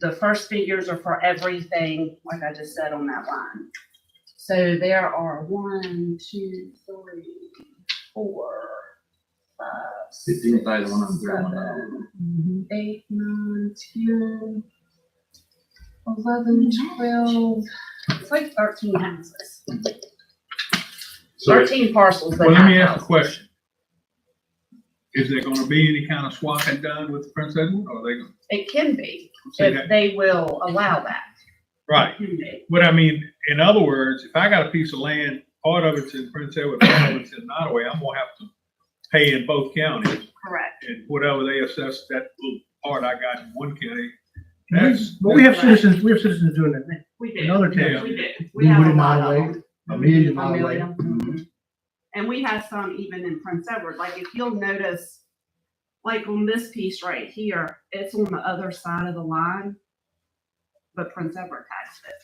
the first figures are for everything, like I just said on that line. So there are one, two, three, four, five, six, Fifteen thousand one hundred thirty-one dollars. seven, eight, nine, ten, eleven, twelve, it's like thirteen houses. So, Thirteen parcels, but well, let me not ask a houses. question. Is there gonna be any kind of swapping done with Prince Edward, or are they gonna It can be, say if that? they will allow that, Right, it can be. but I mean, in other words, if I got a piece of land, part of it's in Prince Edward, part of it's in Nottaway, I'm gonna have to pay in both counties, correct. and whatever they assess that little part I got in one county, But that's. we have citizens, we have citizens doing that now. We do. Another Yeah. town, We do. We We have a would in lot our of way. Mm-hmm. them. a million A mile away. million. Mhm. And we have some even in Prince Edward, like if you'll notice, like on this piece right here, it's on the other side of the line. But Prince Edward taxed it.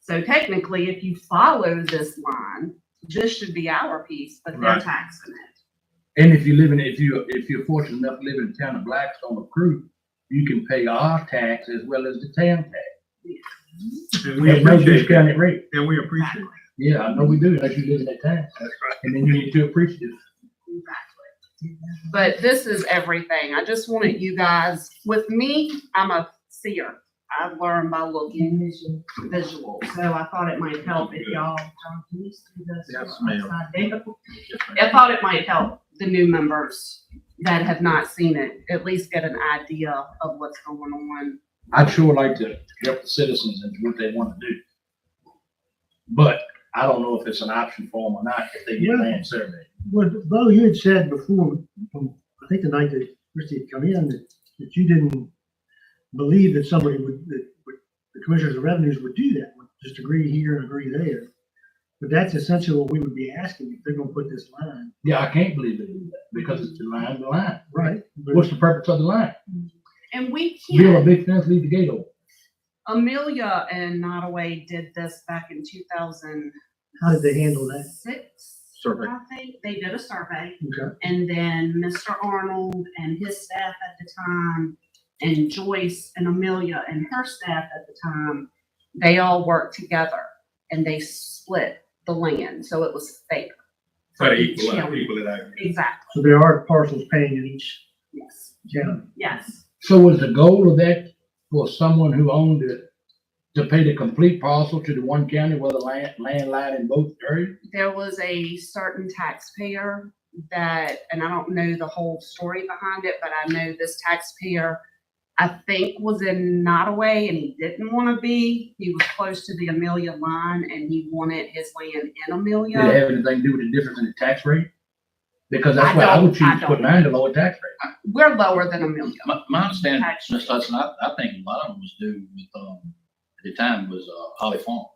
So technically, if you follow this line, this should be our piece, but they're Right. taxing it. And if you live in, if you, if you're fortunate enough to live in the town of Blackstone or Crew, you can pay our tax as well as the town tax. And We we have no appreciate that, discounted rate. and we appreciate it. Yeah, I know we do, unless you live in that town. That's And then you need to appreciate it. Exactly. But this is everything. I just wanted you guys, with me, I'm a seer. I learn by looking visual, so I thought it might help if y'all. John, can you see this? Yes, ma'am. Upside down? I thought it might help the new members that have not seen it, at least get an idea of what's going on. I'd sure like to help the citizens and what they want to do. But I don't know if it's an option for them or not, if they get land surveyed. What, Bo, you had said before, from, I think the night that Christie had come in, that, that you didn't believe that somebody would, that, would, the commissioners of revenues would do that, would just agree here and agree there. But that's essentially what we would be asking if they're gonna put this line, Yeah, I can't believe they do that, because it's the line, the line. right? But- What's the purpose of the line? And we Build a can't, big fence, leave the gate open. Amelia and Nottaway did this back in two thousand. How did they handle that? Six, Survey. I think. They did a survey. Okay. And then Mr. Arnold and his staff at the time, and Joyce and Amelia and her staff at the time, they all worked together and they split the land, so it was fair. Try to equal it, equal it out. Exactly, So there are parcels paying in each yes, county. yes. So was the goal of that for someone who owned it to pay the complete parcel to the one county where the land, land lied in both areas? There was a certain taxpayer that, and I don't know the whole story behind it, but I know this taxpayer, I think was in Nottaway and he didn't want to be, he was close to the Amelia line and he wanted his land in Amelia. Did it have anything to do with the difference in the tax rate? Because I that's why I would don't- I choose to put don't. mine to lower tax rate. we're lower than a million. My, my understanding, Actually. Ms. Hudson, I, I think a lot of them was due with, um, at the time was, uh, Holly Farms.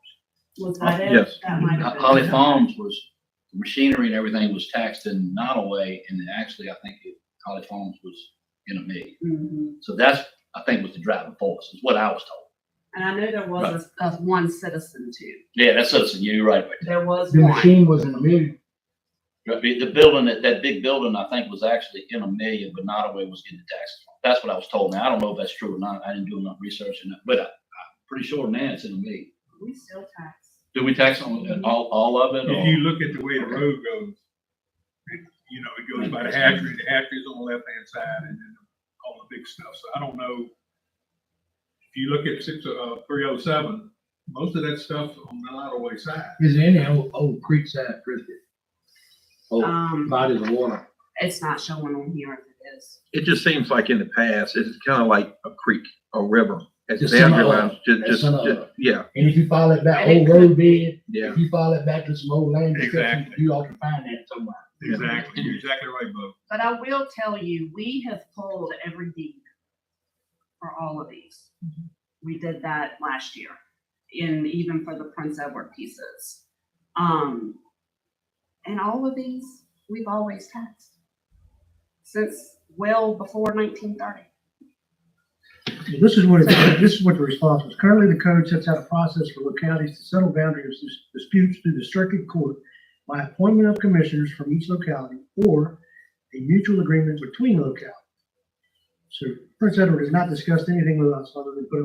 Was that it? Yes. That might have Ho- been. Uh, Holly Farms was, machinery and everything was taxed in Nottaway, and actually, I think it- Holly Farms was in a million. Mhm. So that's, I think, was the driving force, is what I was told. And I know there was a, a one citizen too. Yeah, that's Hudson, you're right. about There was The one. machine was in the middle. that. The, the building, that, that big building, I think, was actually in a million, but Nottaway was getting taxed. That's what I was told. Now, I don't know if that's true or not. I didn't do enough research, and, but I, I'm pretty sure now it's in a million. We still tax. Do we tax on all, all of it? or- If you look at the way the road goes, it- you know, it goes by the hatchery, the hatchery's on the left-hand side and then all the big stuff. So I don't know. If you look at six, uh, three oh seven, most of that stuff on the Nottaway side. Is there any old, old creek side, Oh, Christie? Old Um, bodies of water? it's not showing on here if it is. It just seems like in the past, it's kind of like a creek, a river. As Just the some boundary other- lines, just, just just, some just- other. yeah, And if you follow it back, And it old could- road bed, yeah. if you follow it back to some old land description, Exactly. you ought to find that somewhere. Exactly. You're exactly right, Bo. But I will tell you, we have pulled every deed for all of these. We did that last year, in even for the Prince Edward pieces. Um, and all of these, we've always taxed since well before nineteen thirty. Well, This is what, it- this is what the response was. Currently, the code sets out a process for localities to settle boundary dis- disputes through the circuit court by appointment of commissioners from each locality or a mutual agreement between localities. So Prince Edward has not discussed anything with us other than put it